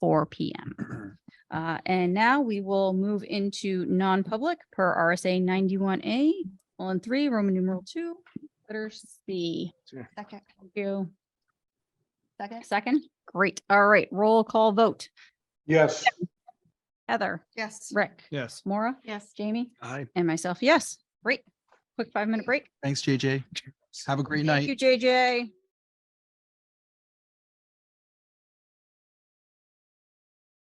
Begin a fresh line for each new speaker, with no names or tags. four PM. Uh, and now we will move into non-public per RSA ninety-one A, on three, Roman numeral two, letter C.
Second,
Thank You,
second?
second? Great. All right, roll call vote.
Yes.
Heather,
Yes.
Rick,
Yes.
Maura,
Yes.
Jamie,
Hi.
and myself, yes. Great. Quick five-minute break.
Thanks, JJ. Have a great night.
Thank you, JJ.